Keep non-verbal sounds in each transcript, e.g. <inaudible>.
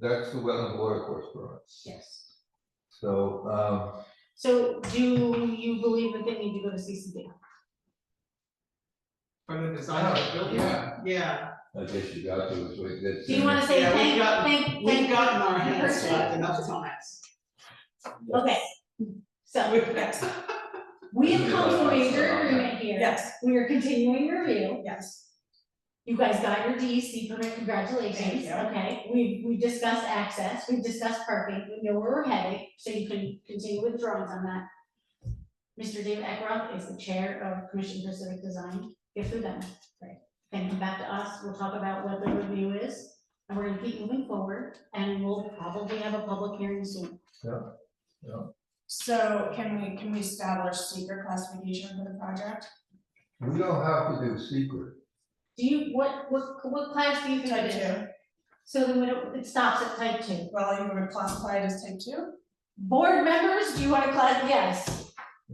That's the wetland water course permits. Yes. So, um, So do you believe that they need to go to CCD? From the design of the building? Yeah. Yeah, I guess you got to, so it did. Do you wanna say Yeah, we've thank, got- thank, thank? we've gotten our hands Perfect. slapped enough times. <laughs> Okay, so Yes, we have come to a third agreement here. Yes. We are continuing review. yes. You guys got your DEC permit, congratulations, Thank you. okay? We, we discussed access, we discussed parking, we know where we're headed, so you can continue with drawings on that. Mr. David Eckroth is the chair of Commission for Civic Design, Get through them. Right. Then come back to us, we'll talk about what the review is, and we're gonna keep moving forward, and we'll probably have a public hearing soon. So can we, can we establish secret classification for the project? We don't have to do secret. Do you, what, what, what class do you think it is? So then we don't, it stops at type two. Well, you would classify it as type two? Board members, do you wanna class, yes.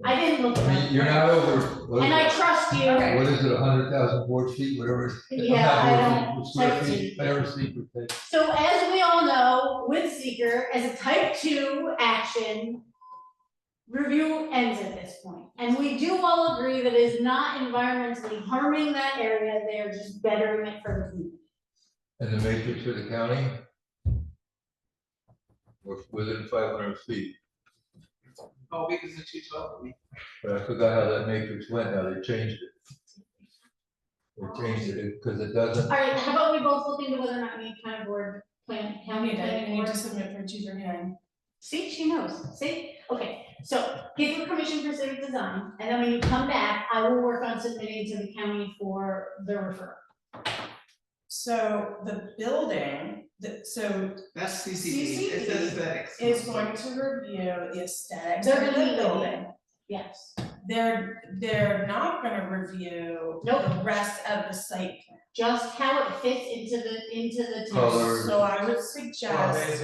I didn't look I at mean, it. you're not over, what And I is trust you, it, what is it, a hundred thousand board feet, whatever. it is. yeah, I I'm not worried, Square type feet, whatever secret thing. don't, so as we all know, with seeker, as a type two action. Review ends at this point, and we do all agree that it is not environmentally harming that area, they are just bettering it for the community. And the matrix of the county? was Within five hundred feet, Oh, because the two twelve, we, but I forgot how that matrix went, now they changed it. They changed it, because it doesn't, Alright, how about we both look into whether or not we need kind of board plan, county planning We need board? to submit for two for hearing. See, she knows, see, okay, so give her permission for civic design, and then when you come back, I will work on submitting to the county for the referral. So the building, the, so that's CCD, it CCD says aesthetics. is going to review the aesthetics of They're gonna the be- building. Yes, They're, they're not gonna review the Nope. rest of the site plan. just how it fits into the, into the Color. town. So I would suggest.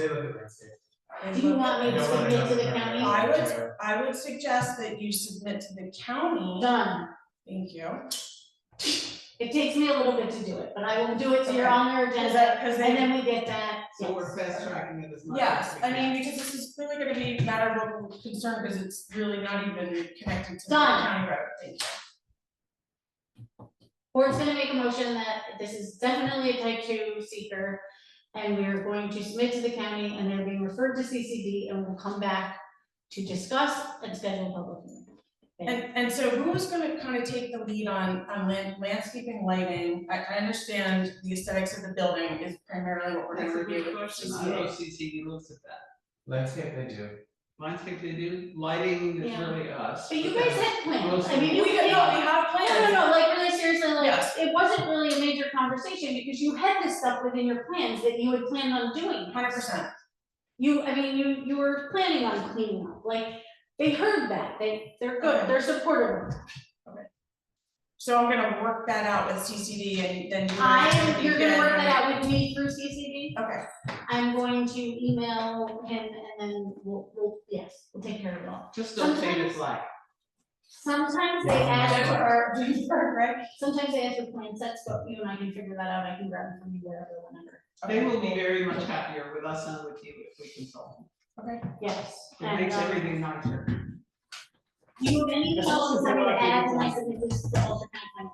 Do you want me to submit to the county? I would, I would suggest that you submit to the county, Done, thank you. it takes me a little bit to do it, but I will do it so you're Okay. on your Is agenda, that, cause and they, then we get that, So we're yes. fast tracking it as much as yes, we I can. mean, because this is clearly gonna be a matter of local concern, because it's really not even connected to the Done. county road, thank you. Board's gonna make a motion that this is definitely a type two seeker, and we are going to submit to the county, and they're being referred to CCD, and we'll come back to discuss and schedule a public hearing. And, and so who is gonna kind of take the lead on, on land- landscaping, lighting? I, I understand the aesthetics of the building is primarily what we're That's gonna a review. good question, I don't know if CCD looks at that. Landscape they do. Landscape they do, lighting is Yeah. really us. But you guys had plans, I mean, We, you. no, we have No, plans. no, no, like really seriously, like, Yes. it wasn't really a major conversation, because you had this stuff within your plans that you had planned on doing. Hundred percent, You, I mean, you, you were planning on cleaning up, like, they heard that, they, they're good, they're supportive. so I'm gonna work that out with CCD and then. you- I am, you're gonna work that you out with me through CCD? can- Okay, <laughs> I'm going to email him and then we'll, we'll, yes, we'll take care of it all. Just don't say it's Sometimes- like, Sometimes they Yeah, I'm ask sure. for, Perfect. <laughs> sometimes they ask for plan sets, but you and I can figure that out, I can grab them from you wherever, whenever. they will be very much happier with us and with you if we consult. Yes. It makes and, um, everything nicer. Do you have any This is questions I can what I add think when I is- submit this to the Ulster County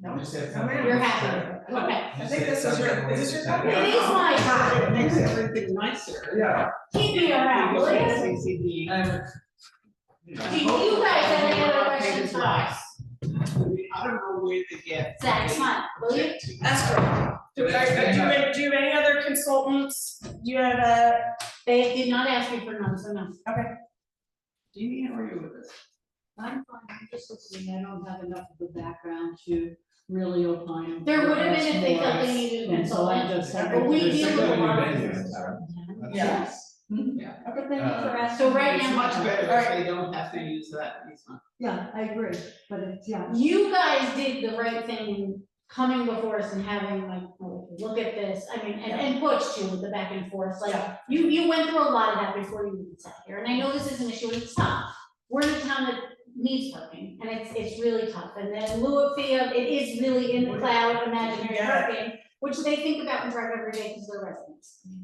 No, You said I'm something. Planning? You're happy, with it? okay. You I think said this is your- something is this your with- copy? It is my It time, makes everything nicer. Yeah. keep me around, Because it's please. CCD. And. Do you guys have any other questions for us? I don't know where they get. Zach, smile, will you? That's correct. Do, But it's- are- do you have, do you have any other consultants? Do you have uh, a, They did not ask me for none, so no. Do you need, or you with us? I'm fine, I'm just listening, I don't have enough of a background to really opine. on There would have been if they what's felt they needed a more, And so I consultant. just. But we There's deal something with we've a lot been of doing, businesses. Tara. yeah, Yeah. But then if they're Uh, asking. So right me- It's now- much better if Alright. they don't have to use that easement. Yeah, I agree, but it's, yeah. You guys did the right thing in coming before us and having like, oh, look at this, I mean, and, and Butch too, with the back and forth, like, Yeah. you, you went through a lot of that before you even sat here, and I know this is an issue, and it's tough. We're in a town that needs parking, and it's, it's really tough, and then Lua Fia, it is really in the cloud, imaginary Yeah. parking, which they think about and drive every day because they're residents.